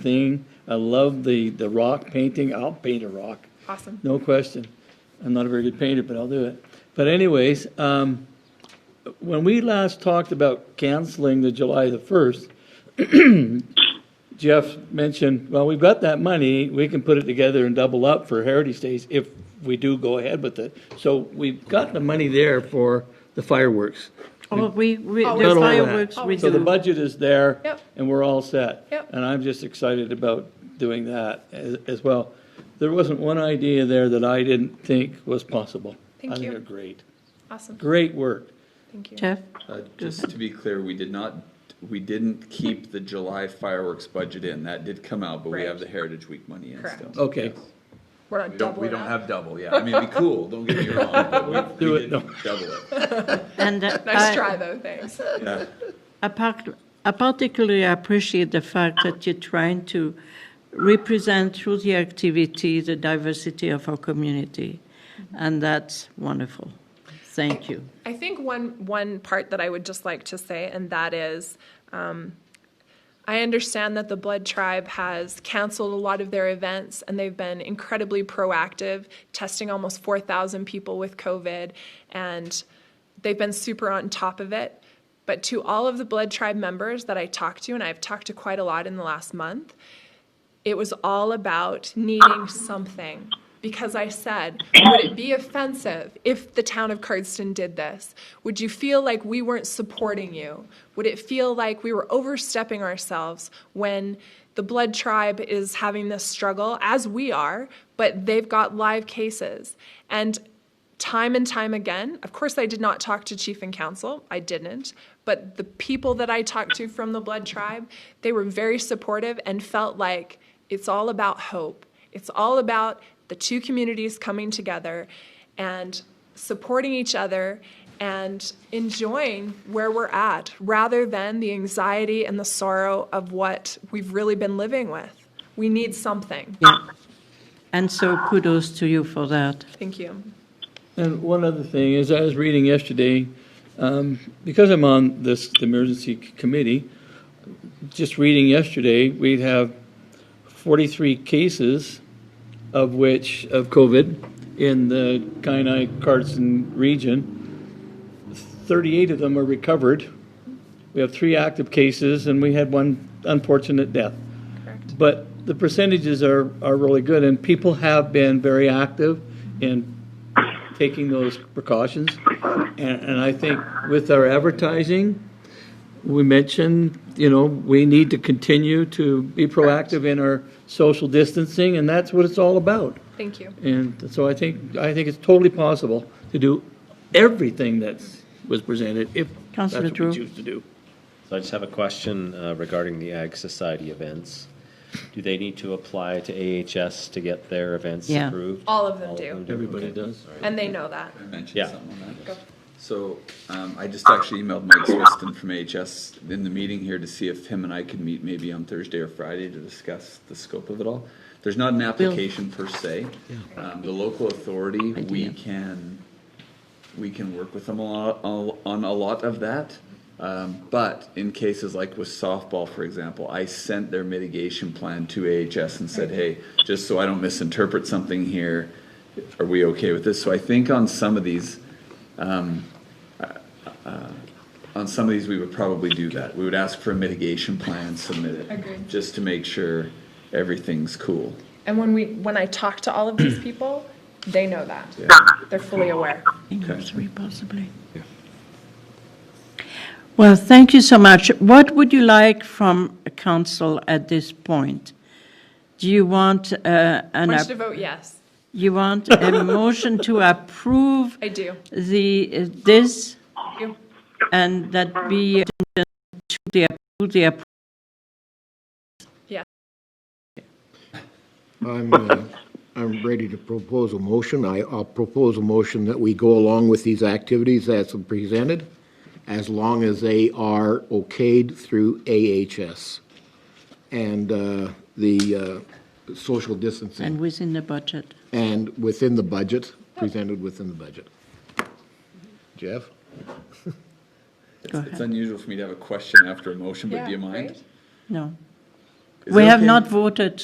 thing. I love the, the rock painting. I'll paint a rock, Awesome. no question. I'm not a very good painter, but I'll do it. But anyways, um, when we last talked about canceling the July the first, Jeff mentioned, well, we've got that money, we can put it together and double up for Heritage Days if we do go ahead with it. So we've got the money there for the fireworks. Oh, we, we, Oh, there's we- fireworks, we So the do. budget is there. Yep. And we're all set. Yep. And I'm just excited about doing that as, as well. There wasn't one idea there that I didn't think was possible. Thank I think you. they're great. Awesome. Great work. Thank you. Jeff, Uh, Just to be clear, we did not, we didn't keep the July fireworks budget in. That did come out, but we have Right. the Heritage Week money in Correct. still. Okay. We're not Oh, We don't, we doubling don't up. have double, yeah. I mean, it'd be cool, don't get me wrong, but we, Do we it, no. didn't double it. and uh, Nice I- try though, thanks. Yeah. I part- I particularly appreciate the fact that you're trying to represent through the activity the diversity of our community, and that's wonderful. Thank you. I think one one part that I would just like to say, and that is, um, I understand that the Blood Tribe has canceled a lot of their events, and they've been incredibly proactive, testing almost four thousand people with COVID, and they've been super on top of it. But to all of the Blood Tribe members that I talked to, and I've talked to quite a lot in the last month, it was all about needing something because I said, would it be offensive if the town of Cardston did this? Would you feel like we weren't supporting you? Would it feel like we were overstepping ourselves when the blood tribe is having this struggle, as we are, but they've got live cases? And time and time again. Of course, I did not talk to chief and council. I didn't. But the people that I talked to from the blood tribe, they were very supportive and felt like it's all about hope. It's all about the two communities coming together and supporting each other and enjoying where we're at rather than the anxiety and the sorrow of what we've really been living with. We need something. And so kudos to you for that. Thank you. And one other thing is, I was reading yesterday, um, because I'm on this emergency c- committee, just reading yesterday, we have 43 cases of which, of COVID, in the Kainai Carson region. 38 of them are recovered. We have three active cases, and we had one unfortunate death. Correct. But the percentages are, are really good, and people have been very active in taking those precautions. And, and I think with our advertising, we mentioned, you know, we need to continue to be proactive in our social distancing, and that's what it's all about. Thank you. And so I think, I think it's totally possible to do everything that was presented, if that's Councilor what Drew. we choose to do. So I just have a question uh, regarding the Ag Society events. Do they need to apply to AHS to get their events Yeah. approved? All of them do. Everybody Okay. does. And they know that. I mentioned Yeah. something on Go. that. So, um, I just actually emailed Mike Swiston from AHS in the meeting here to see if him and I could meet maybe on Thursday or Friday to discuss the scope of it all. There's not an application per se. Um, the local authority, we can, we can work with them a lot, al- on a lot of that. Um, but in cases like with softball, for example, I sent their mitigation plan to AHS Mm-hmm. and said, hey, just so I don't misinterpret something here, are we okay with this? So I think on some of these, um, uh, on some of these, we would probably do that. We would ask for a mitigation plan, submit it. Agreed. Just to make sure everything's cool. And when we when I talk to all of these people, they know that. Yeah. They're fully aware. Okay. Three possibly. Well, thank you so much. What would you like from council at this point? Do you want uh, I an, want you to app- vote yes. you want a motion to approve I do. the, uh, this, I do. and that be uh, to the, to the, I'm, uh, I'm ready to propose a motion. I, I'll propose a motion that we go along with these activities as presented, as long as they are okayed through AHS and uh, the uh, social and distancing, within the budget. and within the budget, presented within the budget. Jeff? It's it's unusual for me to have a question after a motion, but Yeah, do you mind? right? No, Is We it have okay? not voted